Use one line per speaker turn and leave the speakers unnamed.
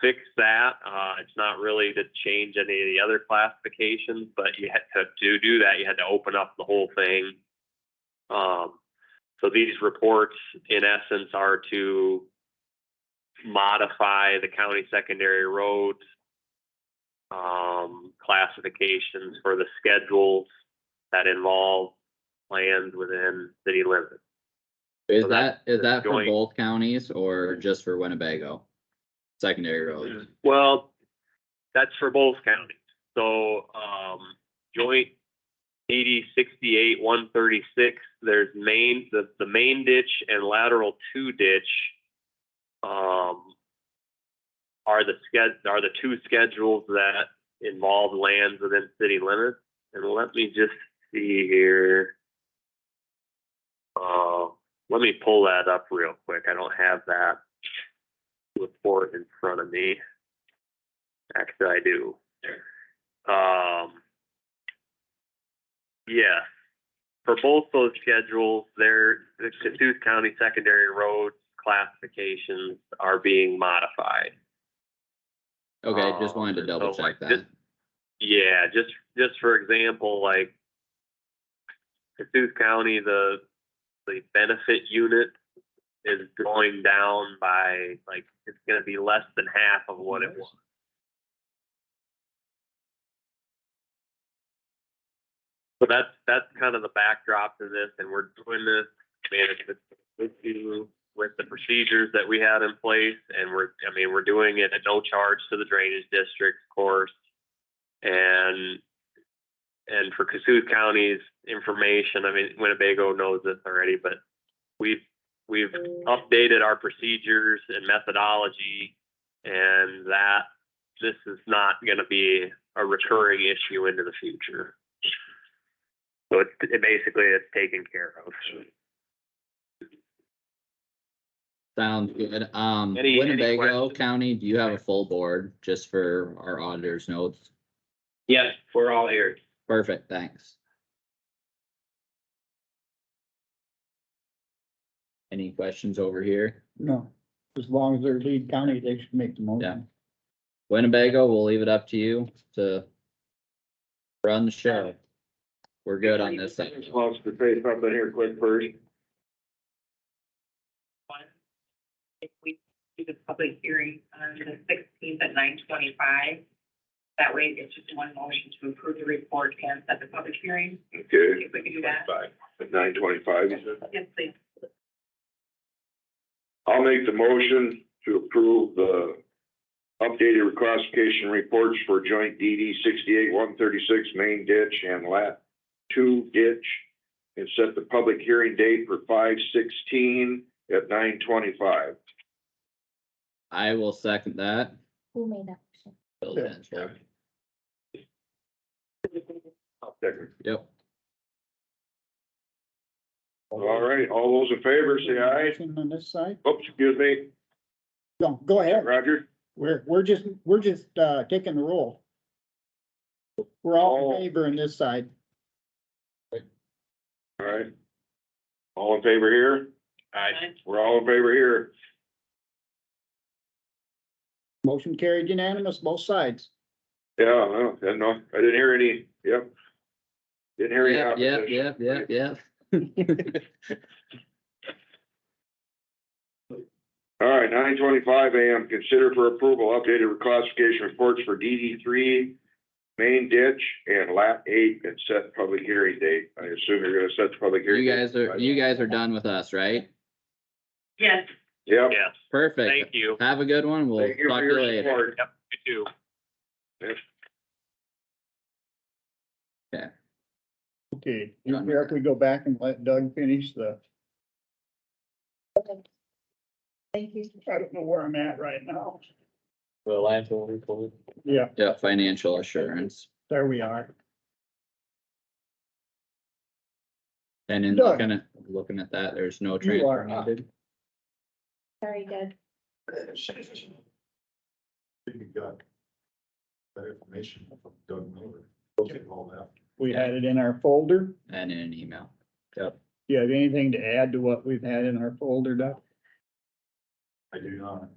fix that. Uh, it's not really to change any of the other classifications, but you had to, to do that, you had to open up the whole thing. Um, so these reports, in essence, are to modify the county secondary roads um, classifications for the schedules that involve lands within city limits.
Is
So
that,
that-
is that for
joint-
both counties or just for Winnebago? Secondary roads?
Well, that's for both counties. So, um, joint eighty sixty-eight, one thirty-six, there's main, the, the main ditch and lateral two ditch, um, are the sched, are the two schedules that involve lands within city limits. And let me just see here. Uh, let me pull that up real quick. I don't have that report in front of me. Actually, I do. Um, yes, for both those schedules, there, the Cassuth County Secondary Roads classifications are being modified.
Okay, just
Um,
wanted to
so
double check
like
that.
this- Yeah, just, just for example, like Cassuth County, the, the benefit unit is going down by, like, it's gonna be less than half of what it was. So that's, that's kind of the backdrop to this, and we're doing this management issue with the procedures that we had in place, and we're, I mean, we're doing it at no charge to the drainage district, of course. And, and for Cassuth County's information, I mean, Winnebago knows this already, but we've, we've updated our procedures and methodology, and that this is not gonna be a recurring issue into the future. So it, it basically is taken care of.
Sounds good. Um,
Any- any
Winnebago
questions?
County, do you have a full board just for our auditors notes?
Yes, we're all here.
Perfect, thanks. Any questions over here?
No, as long as they're lead county, they should make the
Yeah.
motion.
Winnebago, we'll leave it up to you to run the show. We're good on this thing.
Close to say something here quick first.
one. If we do the public hearing on the sixteenth at nine twenty-five, that way it's just one motion to approve the report and set the public hearing.
Okay.
If we could do that.
At nine twenty-five,
Yes, please.
I'll make the motion to approve the updated reclassification reports for joint DD sixty-eight, one thirty-six, main ditch and lat two ditch. And set the public hearing date for five sixteen at nine twenty-five.
I will second that.
Who made that motion?
Bill
Yeah.
Danforth. Yep.
All right, all those in favor, say aye.
Motion On this side?
Oops, excuse me,
No, go ahead.
Roger.
We're, we're just, we're just, uh, taking the roll. We're all in favor on this side.
All right. All in favor here?
Aye.
We're all in favor here.
Motion carried unanimous, both sides.
Yeah, I don't, I know, I didn't hear any, yep. Didn't hear any
Yep, yep,
opposition.
yep, yep, yep.
All right, nine twenty-five AM, consider for approval updated reclassification reports for DD three, main ditch and lap eight and set public hearing date. I assume you're gonna set the public hearing.
You
date.
guys are, you guys are done with us, right?
Yes,
Yep.
Yes, thank
Perfect.
you.
Have a good one. We'll
Thank you
talk to
for
you
your
later.
support.
Yep, you too.
Okay, you care if we go back and let Doug finish the,
Thank you.
I don't know where I'm at right now.
The landfill report.
Yeah,
Yeah, financial assurance.
there we are.
And in
Doug.
looking at, looking at that, there's no
You
transfer
are up.
needed.
Sorry, Doug.
think we got that information from Doug Miller. All that.
We had it in our folder.
and in an email.
Do you have anything to add to what we've had in our folder, Doug?
I do not.